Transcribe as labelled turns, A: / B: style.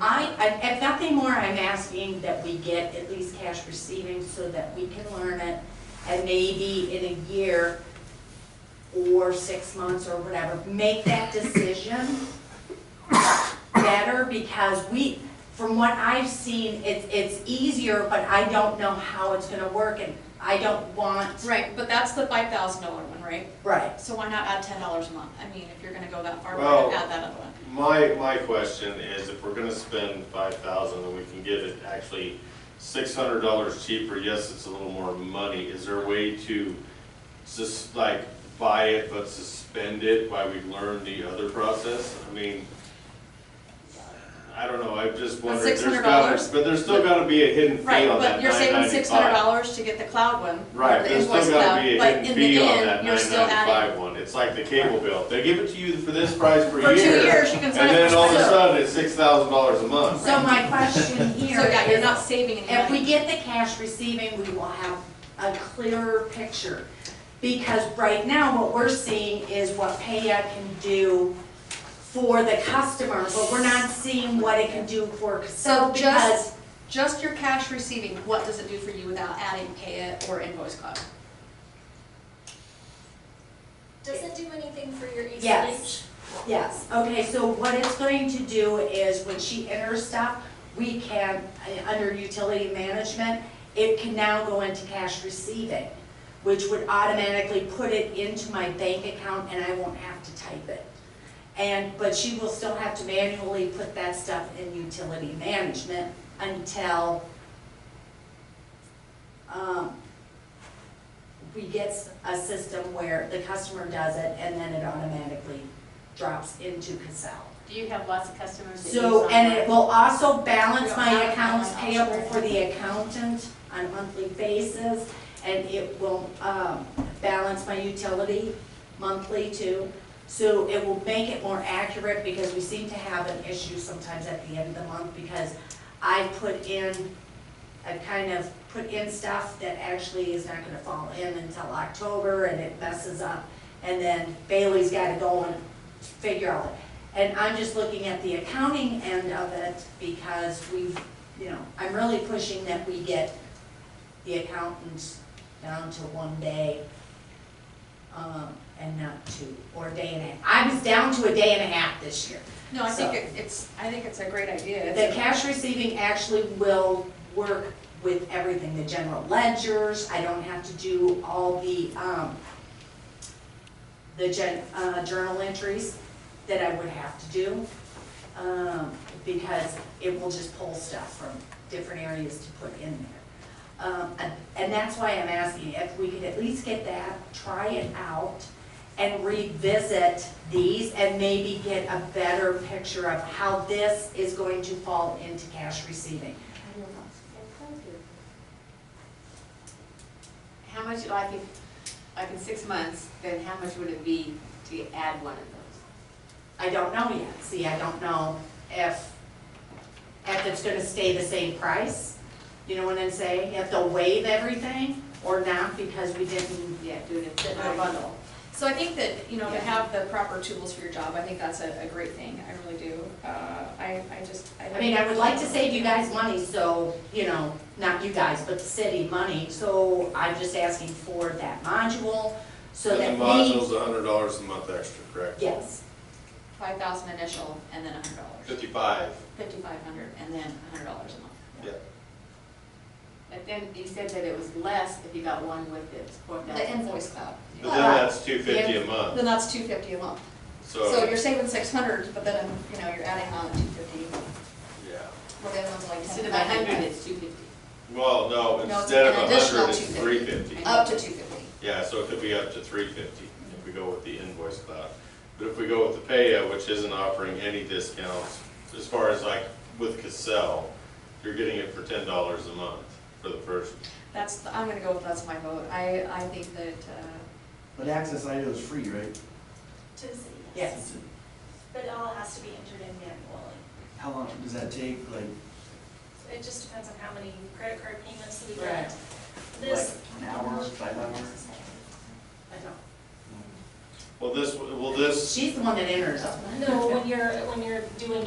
A: I, I- if nothing more, I'm asking that we get at least cash receiving so that we can learn it. And maybe in a year or six months or whatever, make that decision better because we, from what I've seen, it's, it's easier, but I don't know how it's gonna work and I don't want.
B: Right, but that's the five thousand dollar one, right?
A: Right.
B: So why not add ten dollars a month? I mean, if you're gonna go that far, why
C: Well-
B: not add that other one?
C: My, my question is if we're gonna spend five thousand and we can get it actually six hundred dollars cheaper, yes, it's a little more money, is there a way to just like buy it but suspend it while we learn the other process? I mean, I don't know, I just wondered, there's gotta,
B: $600?
C: but there's still gotta be a hidden
B: Right,
C: fee on
B: but
C: that
B: you're
C: nine
B: saving six hundred
C: ninety-five.
B: dollars to get the cloud one.
C: Right,
B: the
C: there's still
B: invoice
C: gotta
B: cloud,
C: be a
B: but
C: hidden
B: in the
C: fee on
B: end,
C: that
B: you're
C: nine
B: still adding-
C: ninety-five one, it's like the cable bill, they give it to you for this price per year.
B: For two years, you can sign
C: And
B: up
C: then
B: for
C: all of a
B: six.
C: sudden, it's six thousand dollars a month.
A: So my question here
B: So yeah, you're
A: is-
B: not saving any
A: If we
B: money.
A: get the cash receiving, we will have a clearer picture. Because right now, what we're seeing is what Paya can do for the customer, but we're not seeing what it can do for
B: So
A: Casella because
B: just, just your cash receiving, what does it do for you without adding pay it or invoice cloud?
D: Doesn't do anything for your ACH.
A: Yes. Yes, okay, so what it's going to do is when she enters stuff, we can, uh, under utility management, it can now go into cash receiving, which would automatically put it into my bank account and I won't have to type it. And, but she will still have to manually put that stuff in utility management until, um, we get s- a system where the customer does it and then it automatically drops into Casella.
E: Do you have lots of customers that use
A: So, and
E: online?
A: it will also balance my
B: Yeah, I- I
A: accounts
B: like that.
A: payable for the accountant on a monthly basis, and it will, um, balance my utility monthly too. So it will make it more accurate, because we seem to have an issue sometimes at the end of the month, because I put in, I kind of put in stuff that actually is not gonna fall in until October, and it messes up. And then Bailey's gotta go and figure out it. And I'm just looking at the accounting end of it because we've, you know, I'm really pushing that we get the accountants down to one day um, and not two, or a day and a half. I was down to a day and a half this year.
B: No, I think
A: So-
B: it- it's, I think it's a great idea. It's
A: The
B: a-
A: cash receiving actually will work with everything, the general ledgers, I don't have to do all the, um, the gen, uh, journal entries that I would have to do, um, because it will just pull stuff from different areas to put in there. Um, and, and that's why I'm asking if we could at least get that, try it out, and revisit these and maybe get a better picture of how this is going to fall into cash receiving.
E: How much, like in, like in six months, then how much would it be to add one of those?
A: I don't know yet. See, I don't know if, if it's gonna stay the same price, you know what I'm saying? If they'll waive everything or not because we didn't,
E: Yeah, do it in
B: Put it in a bundle. So I think that, you know, to
A: Yeah.
B: have the proper tools for your job, I think that's a, a great thing, I really do. Uh, I, I just, I.
A: I mean, I would like to save you guys money, so, you know, not you guys, but the city money. So I'm just asking for that module so that
C: And the
A: we,
C: module's a hundred dollars a month extra, correct?
A: yes,
B: Five thousand initial and then a hundred dollars,
C: Fifty-five.
B: fifty-five hundred and then a hundred dollars a month.
E: But then you said that it was less if you got one with the four thousand.
B: The invoice cloud,
C: But then that's two fifty a month,
B: then that's two fifty a month. So
C: so,
B: you're saving six hundred, but then, you know, you're adding on two fifty,
C: yeah.
B: well, the other one's like ten
E: Instead of a hundred,
B: ninety-five.
E: it's two fifty.
C: Well, no,
B: it's
C: instead of
B: an
C: a
B: additional
C: hundred, it's three
B: $250.
C: fifty. Uh,
B: Up to two fifty.
C: Yeah, so it could be up to three fifty if we go with the invoice cloud. But if we go with the Paya, which isn't offering any discounts, as far as like with Cassell, you're getting it for ten dollars a month for the first.
B: That's, the- I'm gonna go with that's my vote. I, I think that, uh,
F: But Access IO is free, right?
D: To the city, yes.
A: yes.
D: But it all has to be entered in manually.
F: How long does that take, like,
D: So It just depends on how many credit card payments we
A: Right.
D: get.
F: like
D: This.
F: an hour, five hours?
A: I don't-
C: Well, this, well, this
A: She's the one that enters them.
D: No, when you're, when you're doing